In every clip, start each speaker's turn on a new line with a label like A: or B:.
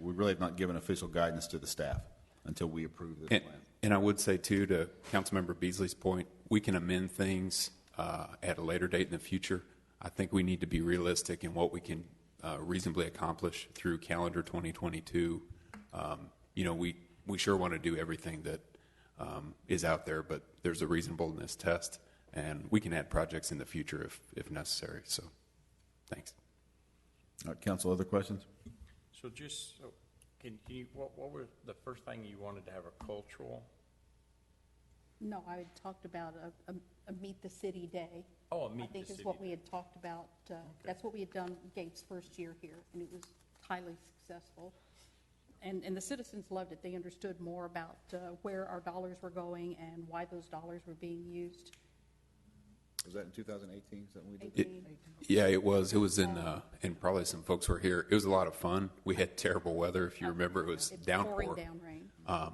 A: we really have not given official guidance to the staff until we approve this
B: And,
A: plan.
B: and I would say too, to Councilmember Beasley's point, we can amend things uh, at a later date in the future. I think we need to be realistic in what we can uh, reasonably accomplish through calendar 2022. Um, You know, we, we sure want to do everything that um, is out there, but there's a reasonableness test, and we can add projects in the future if, if necessary, so, thanks.
A: All right, council, other questions?
C: So just, so- can can you, what, what were the first thing you wanted to have a cultural?
D: No, I had talked about a, a, a Meet the City Day.
C: Oh, a meet
D: I
C: the
D: think
C: city.
D: is what we had talked about, uh, that's what we had done Gates' first year here, and it was highly successful. And, and the citizens loved it, they understood more about, uh, where our dollars were going and why those dollars were being used.
A: Was that in 2018, something we did?
B: It- Yeah, it was. It was in, uh, and probably some folks were here. It was a lot of fun. We had terrible weather, if you remember. It was
D: It's
B: downpour.
D: Pouring down rain.
C: Uh,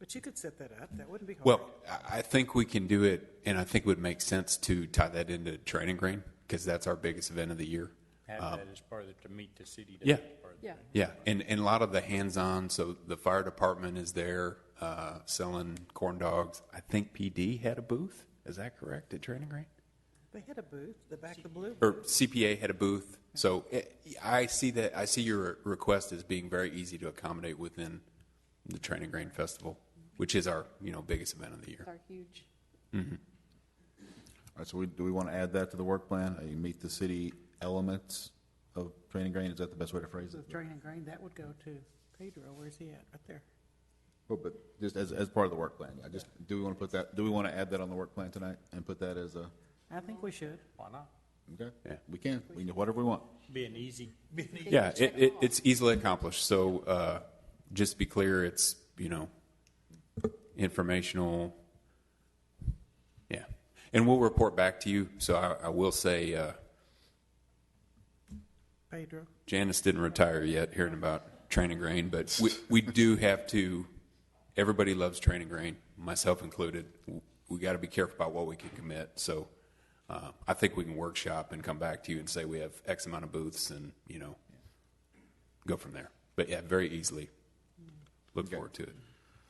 E: But you could set that up. That wouldn't be hard.
B: Well, I, I think we can do it, and I think it would make sense to tie that into Training Grain because that's our biggest event of the year.
C: Have that as part of, the- to meet the city. day
B: yeah.
C: as part of the
D: Yeah.
C: thing.
B: Yeah, and, and a lot of the hands-on. So the fire department is there uh, selling corn dogs. I think PD had a booth. Is that correct at Training Grain?
E: They had a booth, the back of the blue.
B: or CPA had a booth. So eh, I see that, I see your request as being very easy to accommodate within the Training Grain Festival, which is our, you know, biggest event of the year.
D: It's our huge,
A: All right, so we, do we want to add that to the work plan? Uh, You meet the city elements of training grain, is that the best way to phrase
E: So
A: it?
E: the drain and grain, that would go to Pedro. Where's he at? Right there.
A: Well, Oh, but just as, as part of the work plan, I just, do we want to put that, do we want to add that on the work plan tonight and put that as a,
E: I think we should.
C: Why not?
A: okay?
B: Yeah.
A: We can, we can do whatever we want.
C: Be an easy, be an easy.
B: Yeah, it, it, it's easily accomplished. So uh, just to be clear, it's, you know, informational. Yeah. And we'll report back to you. So I, I will say, uh,
E: Pedro.
B: Janice didn't retire yet, hearing about Training Grain, but we, we do have to, everybody loves Training Grain, myself included. We got to be careful about what we can commit. So uh, I think we can workshop and come back to you and say we have X amount of booths and, you know, go from there. But yeah, very easily. Look forward to it.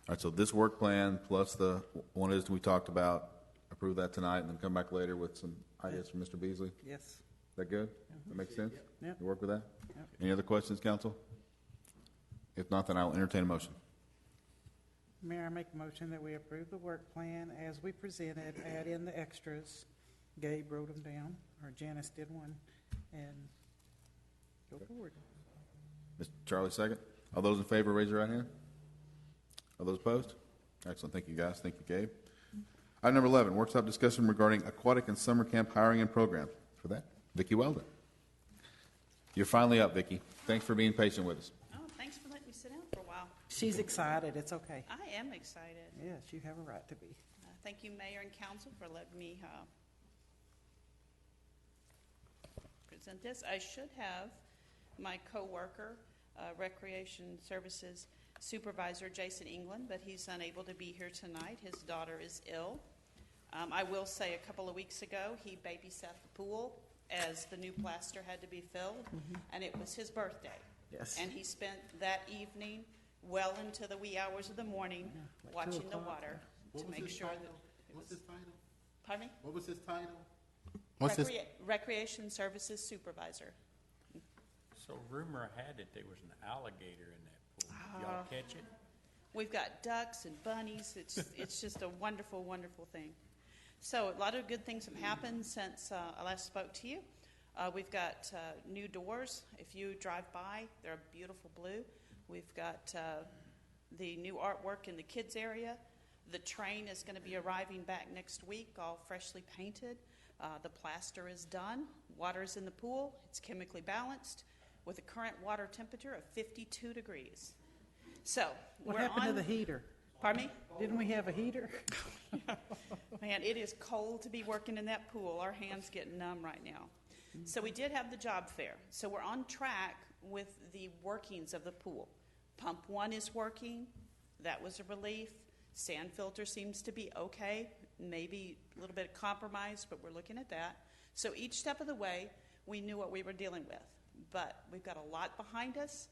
A: All right, so this work plan plus the one is we talked about, approve that tonight and then come back later with some ideas from Mr. Beasley. Is
E: Yes.
A: that good? That makes sense?
E: Mm-hmm. Yep.
A: You work with that? Any other questions, council? If not, then I will entertain a motion.
E: Mayor, I make a motion that we approve the work plan as we presented, add in the extras. Gabe wrote them down, or Janice did one, and go forward.
A: Mr. Charlie, second. All those in favor, raise your right hand. All those opposed? Excellent. Thank you, guys. Thank you, Gabe. Item number 11, workshop discussion regarding aquatic and summer camp hiring and programs. For that, Vicky Weldon. You're finally up, Vicky. Thanks for being patient with us.
F: Oh, thanks for letting me sit down for a while.
E: She's excited. It's okay.
F: I am excited.
E: Yes, you have a right to be.
F: Uh, Thank you, Mayor and Council, for letting me uh, present this. I should have my coworker, uh, Recreation Services Supervisor Jason England, but he's unable to be here tonight. His daughter is ill. Um, I will say, a couple of weeks ago, he babysat the pool as the new plaster had to be filled, and it was his birthday.
E: Mm-hmm. Yes.
F: And he spent that evening well into the wee hours of the morning
E: like two
F: watching the
E: o'clock.
F: water to make sure that it was. Pardon me?
G: What was his title?
F: Recrea- Recreation Services Supervisor.
C: So rumor had it there was an alligator in that pool. Did
D: Ah.
C: Y'all catch it?
F: We've got ducks and bunnies. It's, it's just a wonderful, wonderful thing. So, a lot of good things have happened since uh, I last spoke to you. Uh, we've got uh, new doors. If you drive by, they're a beautiful blue. We've got uh, the new artwork in the kids' area. The train is going to be arriving back next week, all freshly painted. Uh, the plaster is done. Water's in the pool. It's chemically balanced with a current water temperature of 52 degrees. So,
E: What
F: we're
E: happened to
F: on-
E: the heater?
F: Pardon me?
E: Didn't we have a heater?
F: Man, it is cold to be working in that pool. Our hands get numb right now. So we did have the job fair. So we're on track with the workings of the pool. Pump one is working. That was a relief. Sand filter seems to be okay. Maybe a little bit of compromise, but we're looking at that. So each step of the way, we knew what we were dealing with. But we've got a lot behind us.